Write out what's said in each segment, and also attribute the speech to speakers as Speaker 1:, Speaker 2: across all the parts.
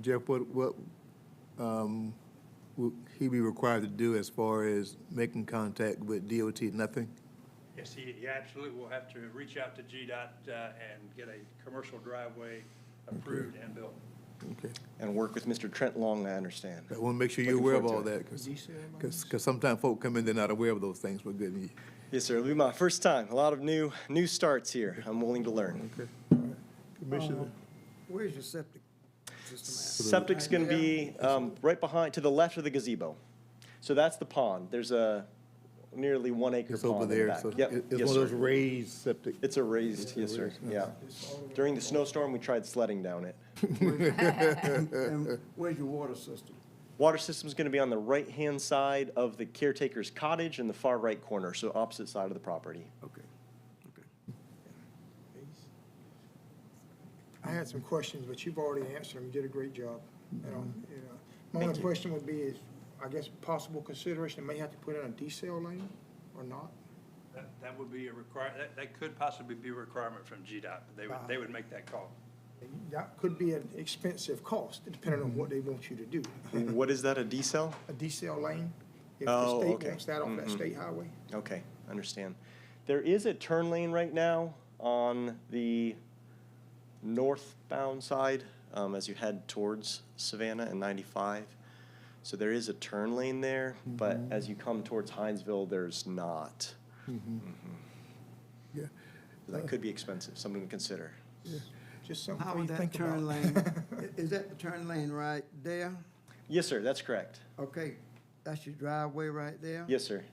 Speaker 1: Jeff, what, what, um, would he be required to do as far as making contact with DOT, nothing?
Speaker 2: Yes, he, he absolutely will have to reach out to GDOT, uh, and get a commercial driveway approved and built.
Speaker 1: Okay.
Speaker 3: and work with Mr. Trent Long, I understand.
Speaker 1: I want to make sure you're
Speaker 3: Looking
Speaker 1: aware of all
Speaker 3: forward to
Speaker 1: that, because, because sometimes folk come in, they're not aware of those things, but good. you-
Speaker 3: Yes, sir. It'll be my first time. A lot of new, new starts here. I'm willing to learn.
Speaker 1: Commissioner,
Speaker 4: Where's your septic system
Speaker 3: Septic's going to be um, right behind, to the left of the gazebo. So that's the pond. There's a nearly one acre
Speaker 1: it's over
Speaker 3: pond in the
Speaker 1: there,
Speaker 3: back.
Speaker 1: so
Speaker 3: Yep,
Speaker 1: it- it's
Speaker 3: yes,
Speaker 1: one of those
Speaker 3: sir.
Speaker 1: raised septic.
Speaker 3: It's a raised, yes, sir, yeah. During the snowstorm, we tried sledding down it.
Speaker 4: at? And where's your water system?
Speaker 3: Water system's gonna be on the right-hand side of the caretaker's cottage in the far right corner, so opposite side of the property.
Speaker 4: Okay, okay.
Speaker 5: I had some questions, but you've already answered them. You did a great job. You know, you know.
Speaker 3: Mm-hmm.
Speaker 5: My
Speaker 3: Thank
Speaker 5: only
Speaker 3: you.
Speaker 5: question would be is, I guess, possible consideration, may have to put in a decel lane or not?
Speaker 2: That, that would be a require, that, that could possibly be a requirement from GDOT. They would, they would make that call.
Speaker 5: That could be an expensive cost, depending
Speaker 3: Mm-hmm.
Speaker 5: on what they want you to do.
Speaker 3: What is that, a D-cell?
Speaker 5: A decel lane, if
Speaker 3: Oh,
Speaker 5: the state
Speaker 3: okay. Mm-hmm.
Speaker 5: wants that off that state highway.
Speaker 3: Okay, understand. There is a turn lane right now on the northbound side, um, as you head towards Savannah and ninety-five. So there is a turn lane there, but as you come towards Hinesville, there's not. Mm-hmm.
Speaker 1: Yeah.
Speaker 3: So That could be expensive, something to consider.
Speaker 5: Just something
Speaker 4: How
Speaker 5: for you
Speaker 4: would
Speaker 5: to
Speaker 4: that
Speaker 5: think
Speaker 4: turn
Speaker 5: about.
Speaker 4: lane, i- is that the turn lane right there?
Speaker 3: Yes, sir, that's correct.
Speaker 4: Okay, that's your driveway right there?
Speaker 3: Yes, sir.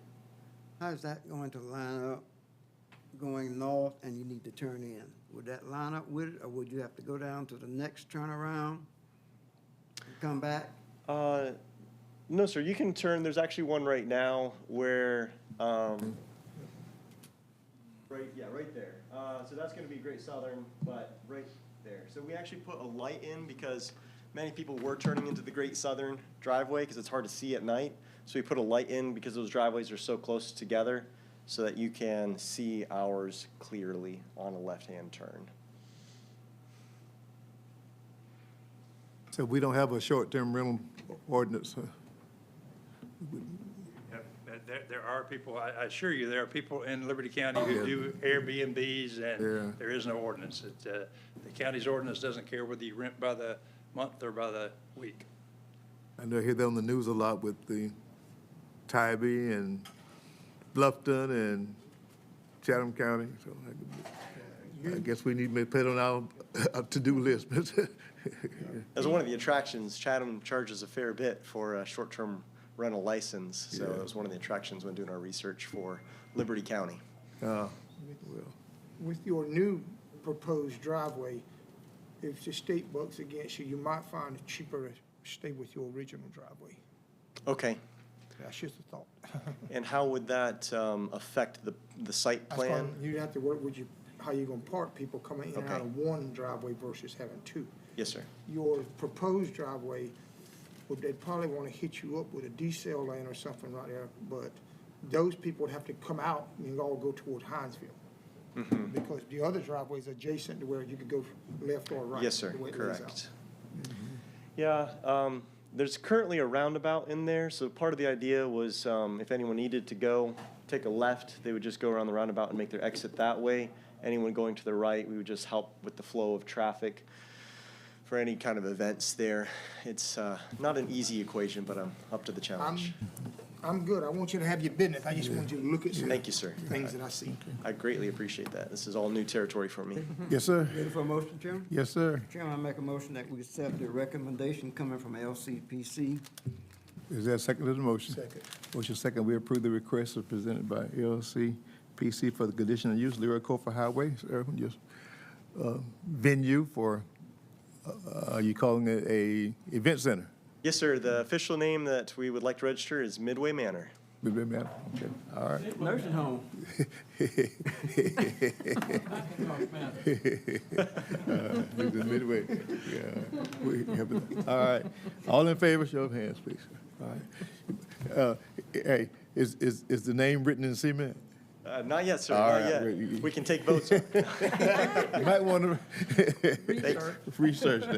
Speaker 4: How's that going to line up going north and you need to turn in? Would that line up with it, or would you have to go down to the next turnaround? and Come back?
Speaker 3: Uh, no, sir. You can turn. There's actually one right now where. Um, right. Yeah. Right there. Uh, so that's going to be Great Southern, but right there. So we actually put a light in because many people were turning into the Great Southern driveway because it's hard to see at night. So we put a light in because those driveways are so close together, so that you can see ours clearly on a left-hand turn.
Speaker 1: So we don't have a short-term rental ordinance, huh?
Speaker 2: Yep, There, there are people, I I assure you, there are people in Liberty County who do Airbnbs,
Speaker 1: Yeah.
Speaker 2: and there is no ordinance. It, uh, The county's ordinance doesn't care whether you rent by the month or by the week.
Speaker 1: I know I hear that on the news a lot with the Tybee and Bluffton and Chatham County. So I- I guess we need to put it on our uh, to-do list.
Speaker 3: As one of the attractions, Chatham charges a fair bit for a short-term rental license, so that was one of the attractions when doing our research for Liberty County.
Speaker 1: Uh,
Speaker 5: With your new proposed driveway, if the state bucks against you, you might find it cheaper to stay with your original driveway.
Speaker 3: Okay,
Speaker 5: That's just a thought.
Speaker 3: and how would that um, affect the, the site
Speaker 5: That's why
Speaker 3: plan?
Speaker 5: You'd have to work with you, how you gonna park people coming in and out
Speaker 3: Okay.
Speaker 5: of one driveway versus having two.
Speaker 3: Yes, sir.
Speaker 5: Your proposed driveway, would they probably wanna hit you up with a decel lane or something right there, but those people would have to come out and all go toward Hinesville.
Speaker 3: Mm-hmm.
Speaker 5: Because the other driveway is adjacent to where you could go left or right.
Speaker 3: Yes, sir,
Speaker 5: the way it lays out.
Speaker 3: correct.
Speaker 1: Mm-hmm.
Speaker 3: Yeah, um, there's currently a roundabout in there, so part of the idea was, um, if anyone needed to go, take a left, they would just go around the roundabout and make their exit that way. Anyone going to the right, we would just help with the flow of traffic for any kind of events there. It's, uh, not an easy equation, but I'm up to the
Speaker 5: I'm,
Speaker 3: challenge.
Speaker 5: I'm good. I want you to have your business. I just want you to look at some
Speaker 3: Thank you, sir.
Speaker 5: things that I see.
Speaker 3: I greatly appreciate that. This is all new territory for me.
Speaker 5: Mm-hmm.
Speaker 1: Yes, sir.
Speaker 4: Ready for a motion, Chairman?
Speaker 1: Yes, sir.
Speaker 4: Chairman, I make a motion that we accept the recommendation coming from LCPC.
Speaker 1: Is there a second to the motion? Second. Motion second, we approve the request as presented by LLC PC for the conditional use Leroy Cofer Highway, sir, yes, uh, venue for, uh, are you calling it a event center?
Speaker 3: Yes, sir, the official name that we would like to register is Midway Manor.
Speaker 1: Would be better? Okay, all right.
Speaker 4: Nursing home.
Speaker 1: We're just midway. Yeah, we have it. All right. All in favor, show of hands, please. All right. Uh, Hey, is, is, is the name written in cement?
Speaker 3: Uh, not yet, sir,
Speaker 1: All
Speaker 3: not
Speaker 1: right, we-
Speaker 3: yet. We can take votes. on it.
Speaker 1: You might want to
Speaker 3: Thank-
Speaker 1: research that.